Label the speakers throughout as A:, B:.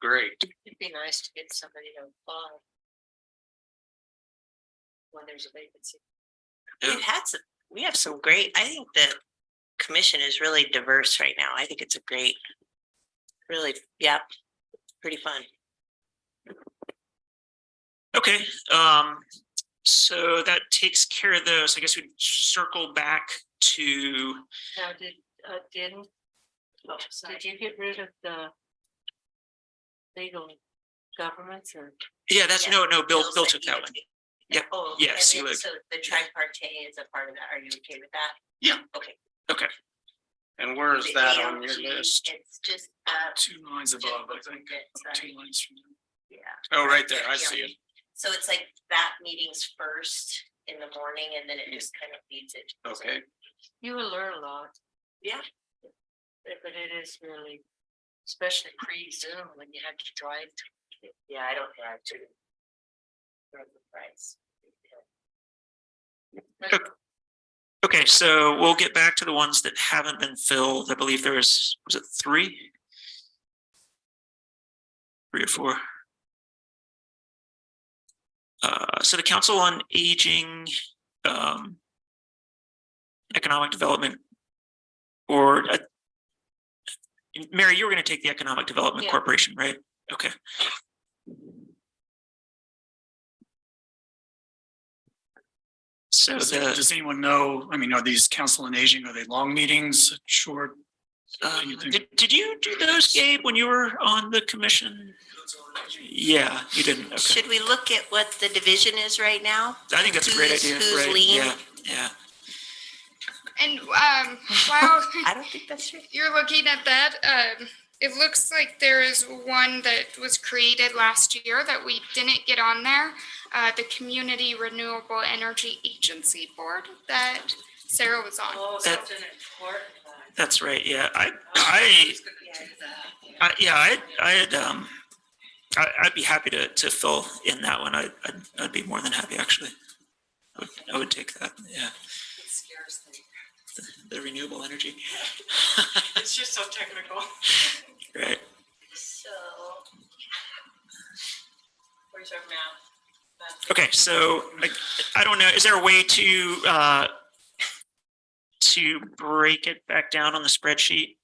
A: great.
B: It'd be nice to get somebody to apply. When there's a vacancy.
A: Yeah.
C: We've had some, we have some great, I think the commission is really diverse right now. I think it's a great, really, yeah, pretty fun.
A: Okay, um, so that takes care of those. I guess we'd circle back to,
B: Now, did, uh, didn't,
C: Oh,
B: did you get rid of the? Legal governments or?
A: yeah, that's, no, no, Bill,
C: Bill's
A: Bill
C: like,
A: took that
C: "You
A: one.
C: take
A: Yeah,
C: that." Oh,
A: yeah,
C: and
A: see,
C: then
A: like-
C: So the tripartite is a part of that. Are you okay with that?
D: And where is
C: The
D: that on your
C: ALG,
D: list?
C: It's just, uh,
A: Two lines
C: just looking at, sorry,
A: lines from.
C: yeah.
D: Oh, right there, I see it.
C: So it's like that meeting's first in the morning and then it just kind of leads it. to-
D: Okay.
B: You will learn a lot.
C: Yeah.
B: But but it is really, especially pre-Zoom when you have to drive. to-
C: Yeah, I don't have to. Throw the price.
A: Okay, so we'll get back to the ones that haven't been filled. I believe there was, was it three? Three or four? Uh, so the Council on Aging, um, Economic Development, or, uh, Mary, you were gonna take the Economic Development
B: Yeah.
A: Corporation, right? Okay. So
E: Does
A: the.
E: does anyone know, I mean, are these council on aging, are they long meetings, short?
A: Uh,
E: You think-
A: Did, did you do those, Gabe, when you were on the commission? Yeah, you didn't. Okay.
C: Should we look at what the division is right now?
A: I think that's a great
C: Who's-
A: idea,
C: who's
A: right?
C: lean?
A: Yeah, yeah.
F: And um, while
C: I don't think that's true.
F: you're looking at that, um, it looks like there is one that was created last year that we didn't get on there. Uh, the Community Renewable Energy Agency Board that Sarah was on.
B: Oh,
A: That-
B: an important one.
A: That's right, yeah. I, I, I, yeah, I, I had, um, I, I'd be happy to, to fill in that one. I, I'd, I'd be more than happy, actually. I would, I would take that, yeah. The renewable energy.
B: It's just so technical.
A: Right.
C: So. Where's our map?
A: Okay, so like, I don't know, is there a way to, uh, to break it back down on the spreadsheet?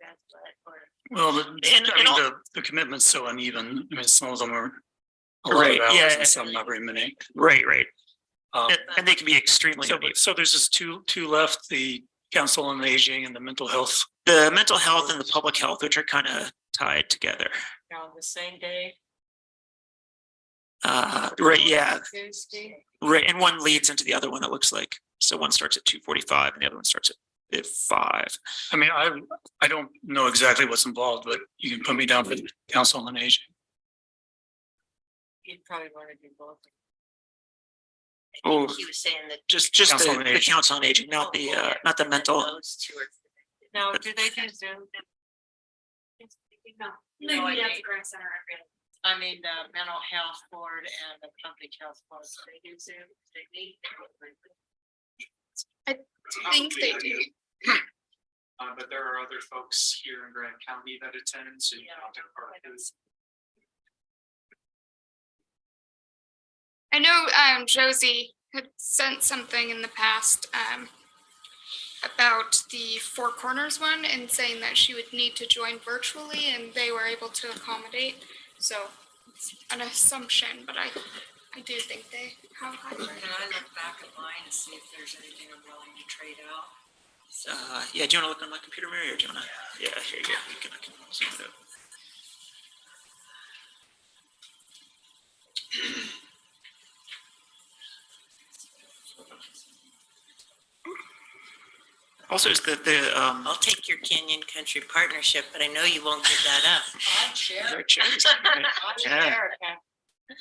C: That's what, or-
E: Well, the, I
A: And- and
E: mean,
A: all-
E: the, the commitment's so uneven. I mean, some of them are a lot
A: Right,
E: of hours
A: yeah.
E: and some not very many.
A: Right, right.
E: Um,
A: And, and they can be extremely
E: So,
A: uneven.
E: so there's just two, two left, the council on aging and the mental health.
A: The mental health and the public health, which are kind of tied together.
B: On the same day.
A: Uh, right, yeah,
B: Tuesday.
A: right. And one leads into the other one, it looks like. So one starts at two forty-five and the other one starts at, at five.
E: I mean, I, I don't know exactly what's involved, but you can put me down for the council on aging.
B: You'd probably want to do both.
C: I think
A: Oh.
C: he was saying that.
A: Just, just
E: Council
A: the,
E: on
A: the
E: Aging.
A: council on aging, not the, uh, not the mental.
C: Those two are.
B: Now, do they do Zoom? No, I mean- I mean, the mental health board and the public health board, so they do Zoom, they meet.
F: I think they do.
D: Uh, but there are other folks here in Grand County that attend, so you can opt in part of this.
F: I know um, Josie had sent something in the past um, about the Four Corners one and saying that she would need to join virtually, and they were able to accommodate. So it's an assumption, but I, I do think they have hybrid.
B: Can I look back at mine and see if there's anything I'm willing to trade out?
A: Uh, yeah, do you want to look on my computer, Mary, or do you want to? Yeah, here you go. You can, I can zoom it up. Also, is the, the, um,
C: I'll take your Canyon Country Partnership, but I know you won't give that up.
B: I'm sure.
A: Their chairs. Right. Yeah.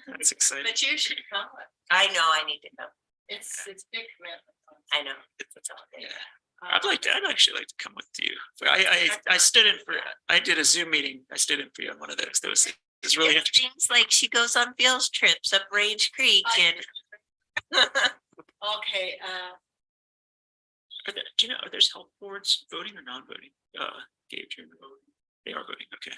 A: That's exciting.
B: But you should come.
C: I know, I need to know.
B: It's, it's big commitment.
C: I know.
A: Yeah. I'd like to, I'd actually like to come with you. But I, I, I stood in for, I did a Zoom meeting. I stood in for you on one of those. That was, it was really
C: It
A: interesting.
C: seems like she goes on field trips up Range Creek and.
B: Okay, uh,
A: Are there, do you know, are there's health boards voting or non-voting? Uh, Gabe, do you remember? They are voting, okay.